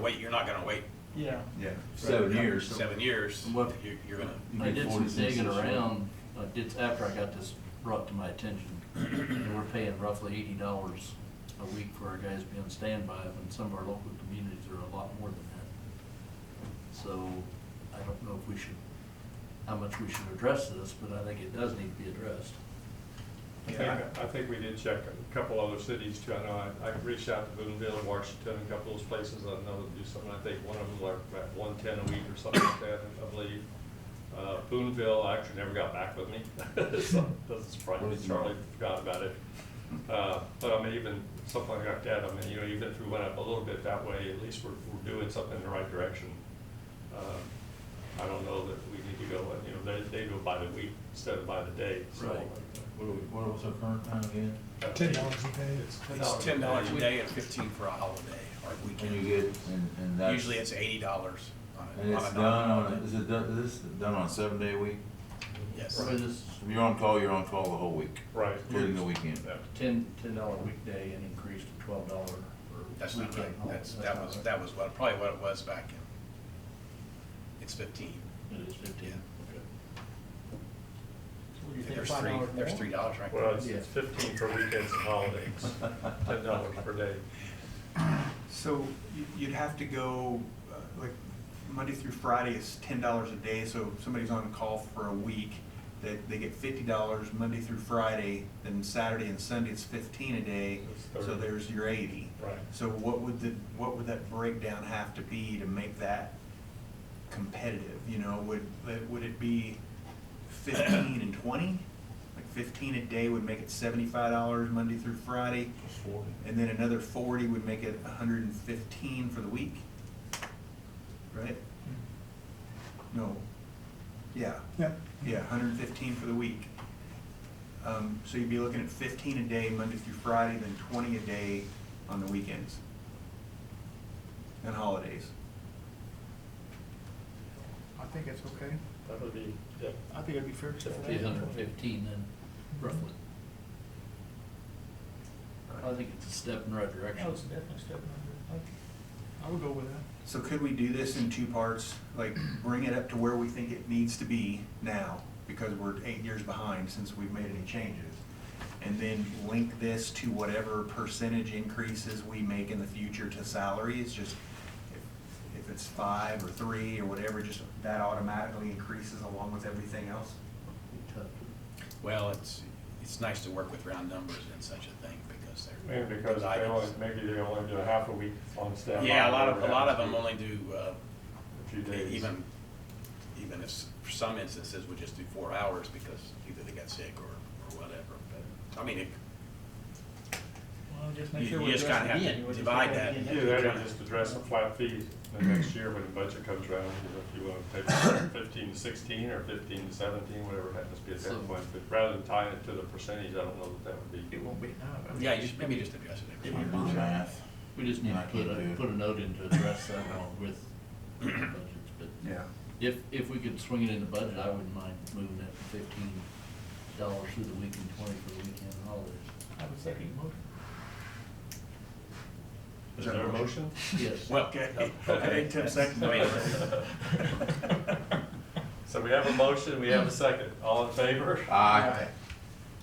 wait, you're not gonna wait Yeah. Yeah. Seven years. seven years, And what- you're, you're gonna, You I get did some 40 cents digging this year. around, I did, after I got this brought to my attention, and we're paying roughly eighty dollars a week for our guys being standby, and some of our local communities are a lot more than that. So, I don't know if we should, how much we should address this, but I think it does need to be addressed. I think, I think we did check a couple other cities too. I know I, I reached out to Boonville, Washington, a couple of those places I know that do something. I think one of them like about one ten a week or something like that, I believe. Uh, Boonville actually never got back with me. So, That's surprising, Charlie forgot about it. Uh, but I mean, even something like that, I mean, you know, even if we went up a little bit that way, at least we're, we're doing something in the right direction. Uh, I don't know that we need to go, you know, they, they do it by the week instead of by the day, so. Right. What are we- what was our current time again? uh, Ten dollars a day. It's ten it's dollars. ten dollars a day and fifteen for a holiday or And you weekend. get, and, and that's. Usually it's eighty dollars on a, on And a. it's done dollar. on, a- is it done, is this done on a seven day week? Yes. So this If you're on call, you're on call the whole week, Right. including the weekend. Yeah. ten, ten dollar weekday and increased to twelve dollar for weekend. That's not right, holiday. that's, that not was, right. that was what, probably what it was back in, it's fifteen. It is fifteen, okay. What do And you think, There's five three, dollars there's more? three dollars right Well, there. it's it's fifteen for weekends and holidays, ten dollars per day. So you- you'd have to go, uh, like, Monday through Friday is ten dollars a day, so if somebody's on call for a week, they, they get fifty dollars Monday through Friday, then Saturday and Sunday it's fifteen a day, That's so thirty. there's your eighty. Right. So what would the, what would that breakdown have to be to make that competitive, you know, would, would it be fifteen and twenty? Like fifteen a day would make it seventy-five dollars Monday through Friday, Forty. and then another forty would make it hundred and fifteen for the week, right? No, yeah, Yeah. yeah, hundred and fifteen for the week. Um, so you'd be looking at fifteen a day, Monday through Friday, then twenty a day on the weekends and holidays. I think it's okay. That would be, yeah, I think it'd be fair. to say that. Eight hundred and fifteen then, roughly. I think it's a step in the right direction. No, it's definitely a step under. I would go with that. So could we do this in two parts, like bring it up to where we think it needs to be now, because we're eight years behind since we've made any changes? And then link this to whatever percentage increases we make in the future to salaries, just if, if it's five or three or whatever, just that automatically increases along with everything else? Be tough to- Well, it's, it's nice to work with round numbers and such a thing because they're. maybe because they items. only, maybe they only do a half a week on staff. Yeah, a lot of, a lot of them only do, uh, A few days. even, even if, s- for some instances, we just do four hours because either they got sick or, or whatever. But, I mean, it, Well, just You- make sure you we just address kinda it have to again. You would just divide add it that. again. Either that or just address the flat fee the next year when the budget comes around, you know, if you want to pay fifteen to sixteen or fifteen to seventeen, whatever it happens to be at So- that point. But rather than tying it to the percentage, I don't know that that would be. It won't be enough. I mean, yeah, you just, maybe just address it every I year. do math. We just need I to put can't do a, it. put a note in to address that along with the budgets, but Yeah. if, if we could swing it in the budget, I wouldn't mind moving that to fifteen dollars through the week and twenty for the weekend and holidays. I would second your motion. Is there a motion? Yes. Well, Okay, I need ten seconds. I mean, So we have a motion, we have a second. All in favor? Aye.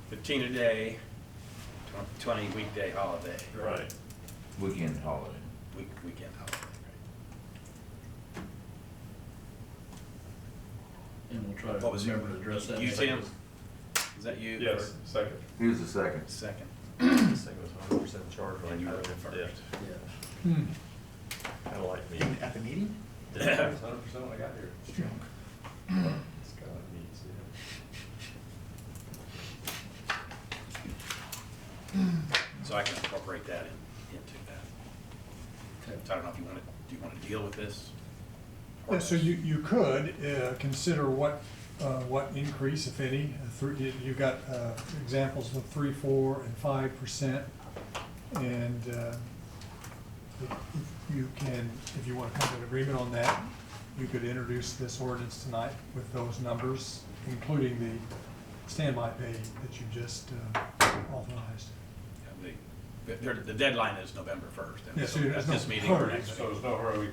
fifteen a day, tw- twenty weekday holiday, Right. Weekend holiday. week, weekend holiday, right? And we'll try What to was your- remember to address that. You, next- Tim? Is that you? Yes, second. Here's the second. Second. This thing was hundred percent charged. And you were the first. Yeah. Kind of like me. At the meeting? Hundred percent when I got here. It's kind of neat, So I can incorporate that in, into that. So I don't know if you want to, do you want to deal with this? Yeah, so you, you could uh, consider what, uh, what increase, if any, uh, three, you've got uh, examples of three, four, and five percent. And uh, if you can, if you want to come to an agreement on that, you could introduce this ordinance tonight with those numbers, including the standby pay that you just uh, authorized. Yeah, the- The, the deadline is November first. Yeah, so there's no This meeting, or hurry. next So there's no hurry, we